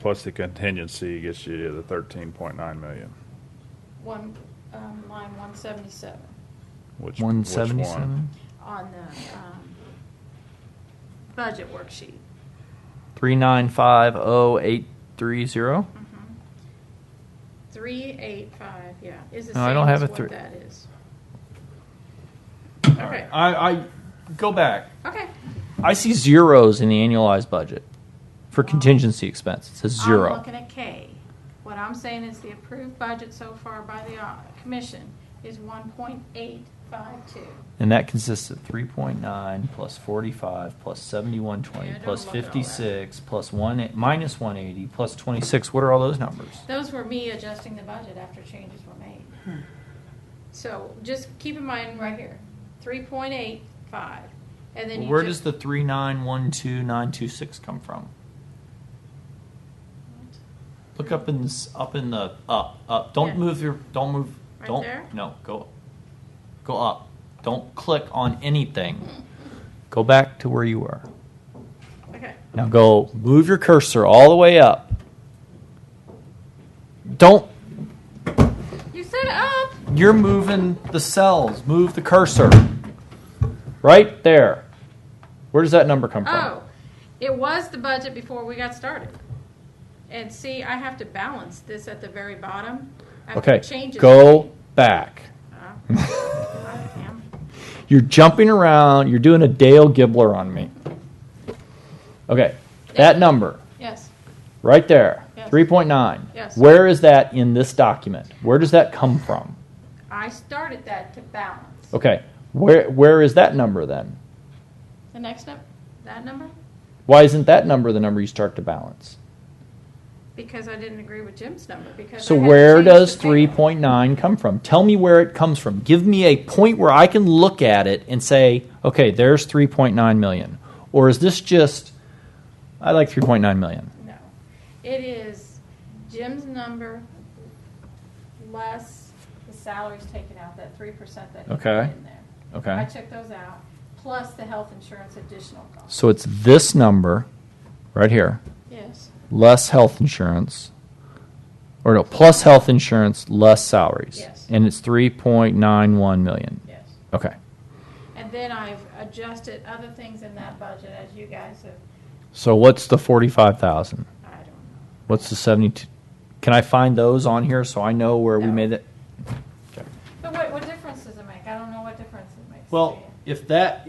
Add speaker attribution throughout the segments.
Speaker 1: plus the contingency gets you to the thirteen point nine million,
Speaker 2: One, um, line one seventy-seven
Speaker 1: which. which
Speaker 3: One
Speaker 1: one?
Speaker 3: seventy-seven,
Speaker 2: on the, um, budget worksheet.
Speaker 3: three nine five oh eight three zero.
Speaker 2: Three, eight, five, yeah, is the
Speaker 3: No, I
Speaker 2: same
Speaker 3: don't
Speaker 2: as
Speaker 3: have a
Speaker 2: what
Speaker 3: three-
Speaker 2: that is.
Speaker 3: All
Speaker 2: right.
Speaker 3: I, I go back.
Speaker 2: Okay.
Speaker 3: I see zeros in the annualized budget for contingency expense. It says
Speaker 2: I'm
Speaker 3: zero.
Speaker 2: looking at K. What I'm saying is the approved budget so far by the uh, commission is one point eight five two.
Speaker 3: And that consists of three point nine plus forty-five plus seventy-one twenty
Speaker 2: Yeah, don't
Speaker 3: plus
Speaker 2: look at all that.
Speaker 3: fifty-six plus one, minus one eighty plus twenty-six. What are all those numbers?
Speaker 2: Those were me adjusting the budget after changes were made. So just keep in mind right here, three point eight five, and then you
Speaker 3: Where does
Speaker 2: just-
Speaker 3: the three nine one two nine two six come from? Look up in this, up in the up up. Don't
Speaker 2: Yeah.
Speaker 3: move your don't move
Speaker 2: Right
Speaker 3: don't
Speaker 2: there?
Speaker 3: no go go up. Don't click on anything. Go back to where you were.
Speaker 2: Okay,
Speaker 3: Now go move your cursor all the way up. Don't
Speaker 2: you set it up.
Speaker 3: you're moving the cells. Move the cursor. Right there. Where does that number come from?
Speaker 2: Oh, it was the budget before we got started. And see, I have to balance this at the very bottom. after
Speaker 3: okay.
Speaker 2: Changes.
Speaker 3: Go back.
Speaker 2: Uh, I am.
Speaker 3: You're jumping around. You're doing a Dale Gibbler on me. Okay, that number
Speaker 2: Yes,
Speaker 3: right there,
Speaker 2: Yes.
Speaker 3: 3.9.
Speaker 2: Yes.
Speaker 3: Where is that in this document? Where does that come from?
Speaker 2: I started that to balance.
Speaker 3: Okay, where where is that number then?
Speaker 2: The next up, that number,
Speaker 3: Why isn't that number the number you start to balance?
Speaker 2: because I didn't agree with Jim's number, because.
Speaker 3: So
Speaker 2: I had to
Speaker 3: where
Speaker 2: change
Speaker 3: does
Speaker 2: the table.
Speaker 3: 3.9 come from? Tell me where it comes from. Give me a point where I can look at it and say, okay, there's 3.9 million. Or is this just I like 3.9 million?
Speaker 2: No, it is Jim's number less the salaries taken out, that three percent that he put
Speaker 3: Okay.
Speaker 2: in there.
Speaker 3: Okay.
Speaker 2: I took those out, plus the health insurance additional cost.
Speaker 3: So it's this number right here,
Speaker 2: Yes,
Speaker 3: less health insurance, or no, plus health insurance, less salaries.
Speaker 2: Yes.
Speaker 3: And it's 3.91 million.
Speaker 2: yes.
Speaker 3: Okay.
Speaker 2: And then I've adjusted other things in that budget as you guys have,
Speaker 3: So what's the 45,000?
Speaker 2: I don't know.
Speaker 3: What's the 72? Can I find those on here so I know where we
Speaker 2: No.
Speaker 3: made it?
Speaker 2: But what, what difference does it make? I don't know what difference it makes. to
Speaker 3: Well,
Speaker 2: you.
Speaker 3: if that,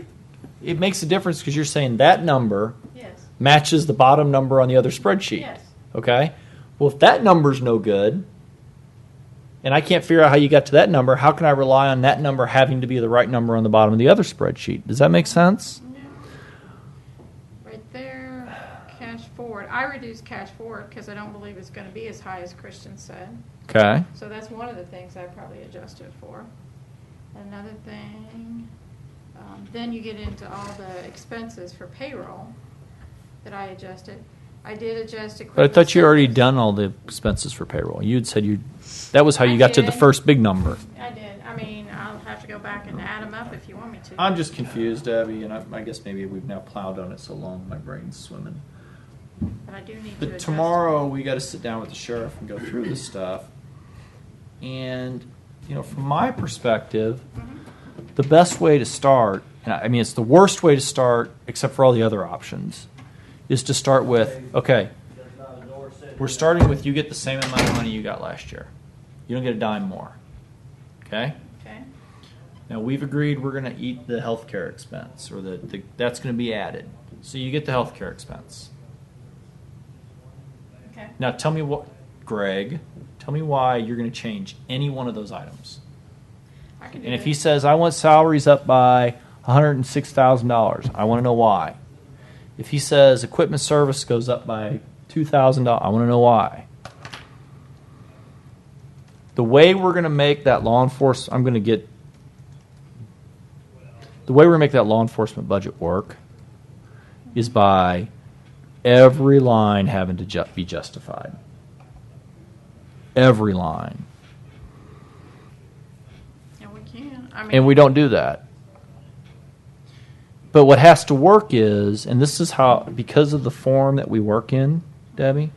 Speaker 3: it makes a difference because you're saying that number
Speaker 2: Yes,
Speaker 3: matches the bottom number on the other spreadsheet.
Speaker 2: yes.
Speaker 3: Okay. Well, if that number's no good, and I can't figure out how you got to that number, how can I rely on that number having to be the right number on the bottom of the other spreadsheet? Does that make sense?
Speaker 2: Right there, cash forward. I reduced cash forward because I don't believe it's gonna be as high as Christian said.
Speaker 3: Okay.
Speaker 2: So that's one of the things I probably adjusted for. Another thing, um, then you get into all the expenses for payroll that I adjusted. I did adjust equipment.
Speaker 3: But I thought you already
Speaker 2: service.
Speaker 3: done all the expenses for payroll. You'd said you that was how you
Speaker 2: I
Speaker 3: got to the
Speaker 2: did.
Speaker 3: first big number.
Speaker 2: I did. I mean, I'll have to go back and add them up if you want me to.
Speaker 3: I'm just confused, Abby, and I, I guess maybe we've now plowed on it so long my brain's swimming.
Speaker 2: But I do need to
Speaker 3: But
Speaker 2: adjust.
Speaker 3: tomorrow we got to sit down with the sheriff and go through this stuff. And you know, from my perspective,
Speaker 2: Mhm.
Speaker 3: the best way to start, and I I mean, it's the worst way to start, except for all the other options, is to start with okay, we're starting with you get the same amount of money you got last year. You don't get a dime more. Okay?
Speaker 2: Okay,
Speaker 3: Now we've agreed we're going to eat the healthcare expense, or the, the that's going to be added. So you get the healthcare expense.
Speaker 2: okay.
Speaker 3: Now tell me what, Greg, tell me why you're going to change any one of those items.
Speaker 2: I can do
Speaker 3: And if
Speaker 2: that.
Speaker 3: he says, I want salaries up by $106,000, I want to know why. If he says equipment service goes up by $2,000, I want to know why. The way we're going to make that law enforcement, I'm going to get, the way we're going to make that law enforcement budget work is by every line having to ju- be justified. Every line.
Speaker 2: And we can, I mean.
Speaker 3: and we don't do that. But what has to work is, and this is how, because of the form that we work in, Debbie,